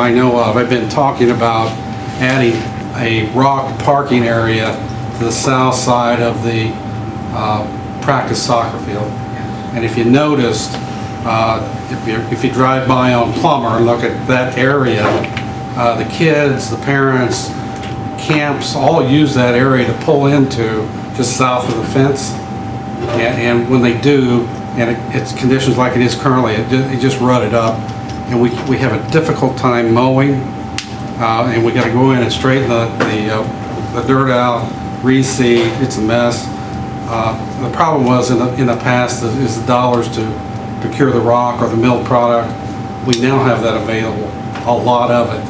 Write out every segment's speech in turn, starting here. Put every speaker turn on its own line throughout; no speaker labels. I know of, I've been talking about adding a rock parking area to the south side of the uh, practice soccer field. And if you noticed, uh, if you, if you drive by on Plummer and look at that area, uh, the kids, the parents, camps, all use that area to pull into just south of the fence. And, and when they do, and it- it's conditions like it is currently, it ju- it just rutted up. And we, we have a difficult time mowing, uh, and we gotta go in and straighten the, the, uh, the dirt out, reseed, it's a mess. Uh, The problem was in the, in the past is- is the dollars to procure the rock or the mill product. We now have that available, a lot of it.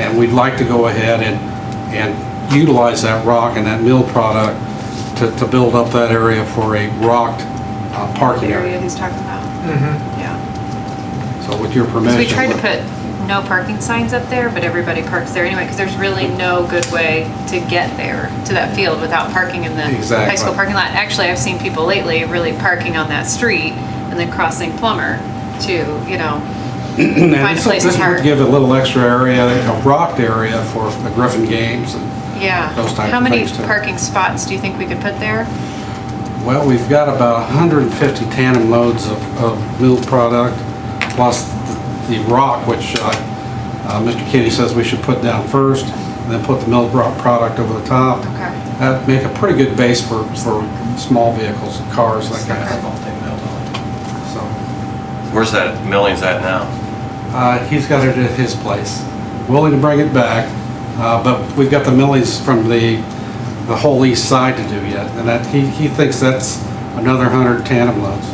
And we'd like to go ahead and, and utilize that rock and that mill product to, to build up that area for a rocked uh,
the
parking
area
area.
he's talking about. Yeah.
So with your
So
permission.
we tried to put no parking signs up there, but everybody parks there anyway, because there's really no good way to get there, to that field without parking in the high
Exactly.
school parking lot. Actually, I've seen people lately really parking on that street and then crossing Plummer to, you know,
And
find a
this-
place to
This
park.
would give a little extra area, a rocked area for the Griffin games. and-
Yeah.
Those type
How
of
many
things, too.
parking spots do you think we could put there?
Well, we've got about 150 tandem loads of, of mill product, plus the the rock, which uh, uh, Mr. Kenny says we should put down first, and then put the mill rock product over the top.
Okay.
That'd make a pretty good base for, for small vehicles, cars, that kind of stuff. So,
Where's that milling's at now?
uh, He's got it at his place, willing to bring it back, uh, but we've got the millies from the, the whole east side to do yet, and that, he, he thinks that's another 100 tandem loads.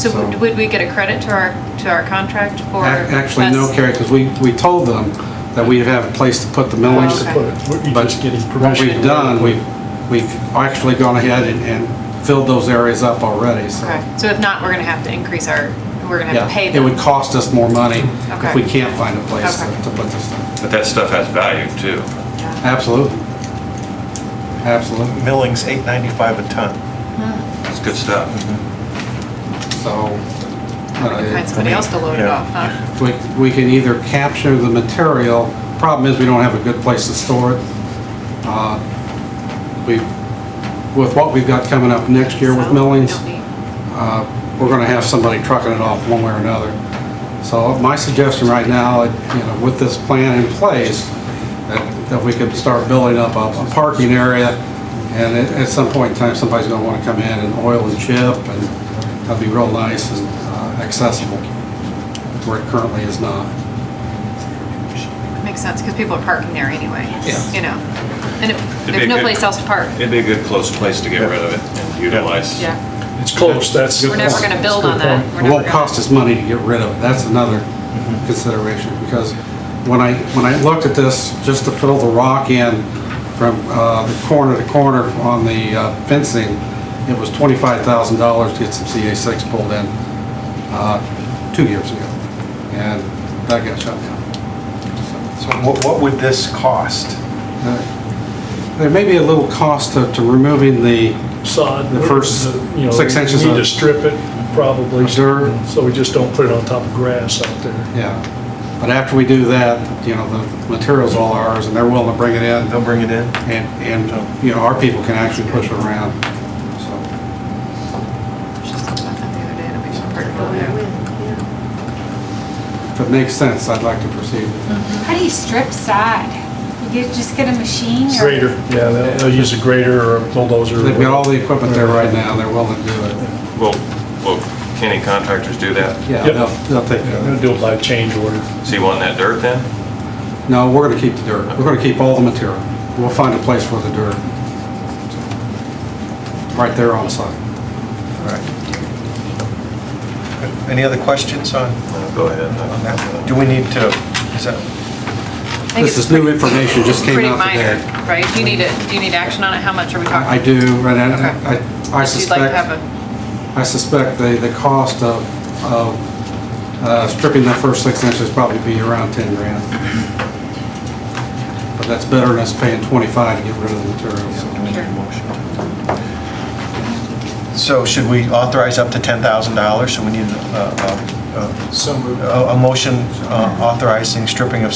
So
So-
would- would we get a credit to our, to our contract for?
Ac- Actually, no,
us-
Carrie, because we, we told them that we have a place to put the millings.
Oh, Okay.
put it. We're- You're
But
just getting
What
permission.
we've done, we've, we've actually gone ahead and- and filled those areas up already, so.
Okay, so if not, we're gonna have to increase our, we're gonna have
Yeah,
to pay
it
them.
would cost us more money if
Okay.
we can't find a place to
Okay.
to put this stuff.
But that stuff has value too.
Yeah.
Absolutely. Absolutely.
milling's 895 a ton.
It's good stuff.
So.
We can
uh,
Find somebody else to load it
Yeah.
off, huh?
We, we can either capture the material, problem is we don't have a good place to store it. Uh, We, with what we've got coming up next year
So,
with
we
millings,
don't need-
uh, we're gonna have somebody trucking it off one way or another. So my suggestion right now, you know, with this plan in place, that, that we could start building up a a parking area, and at, at some point in time, somebody's gonna wanna come in and oil and chip, and that'd be real nice and uh, accessible, where it currently is not.
Makes sense, because people are parking there anyway, you know? And if,
It'd be
there's
a
no
good-
place else to park.
It'd be a good close place to get rid of it and utilize.
Yeah,
It's close, that's.
we're never gonna build on that. We're
It
never
won't
gonna-
cost us money to get rid of it, that's another consideration, because when I, when I looked at this, just to fill the rock in from uh, the corner to corner on the uh, fencing, it was $25,000 to get some CA6 pulled in uh, two years ago, and that got shut down.
So what, what would this cost?
Uh, There may be a little cost to to removing the,
Sod.
The first
you know,
six inches
We
of-
need to strip it, probably.
Dirt.
So we just don't put it on top of grass out there.
yeah, but after we do that, you know, the material's all ours, and they're willing to bring it in.
They'll bring it in?
And, and, you know, our people can actually push it around, so.
I was just thinking about that the other day, and we should park over there.
If it makes sense, I'd like to proceed.
How do you strip sod? You get- just get a machine or?
Grader, yeah, they'll, they'll use a grader or a bulldozer.
They've got all the equipment there right now, they're willing to do it.
Well, well, can any contractors do that?
Yeah,
Yep.
they'll, they'll take care
Yeah, They're
of
gonna do it by change order.
So you want that dirt then?
it. No, we're gonna keep the dirt, we're gonna keep all the material. We'll find a place for the dirt. Right there on site.
All right. Any other questions on
No, Go ahead.
on that? uh, Do we need to, is that,
I think
This
it's
is new information, just came
pretty
out
minor,
today.
right? Do you need it, do you need action on it? How much are we talking?
I I do, and I, I- I
If You'd like to have
suspect,
a,
I suspect the, the cost of, of uh, stripping that first six inches probably be around 10 grand. But that's better than us paying 25 to get rid of the material, so.
do we need a motion? So should we authorize up to $10,000? So we need a, uh,
So moved.
a a motion uh, authorizing stripping of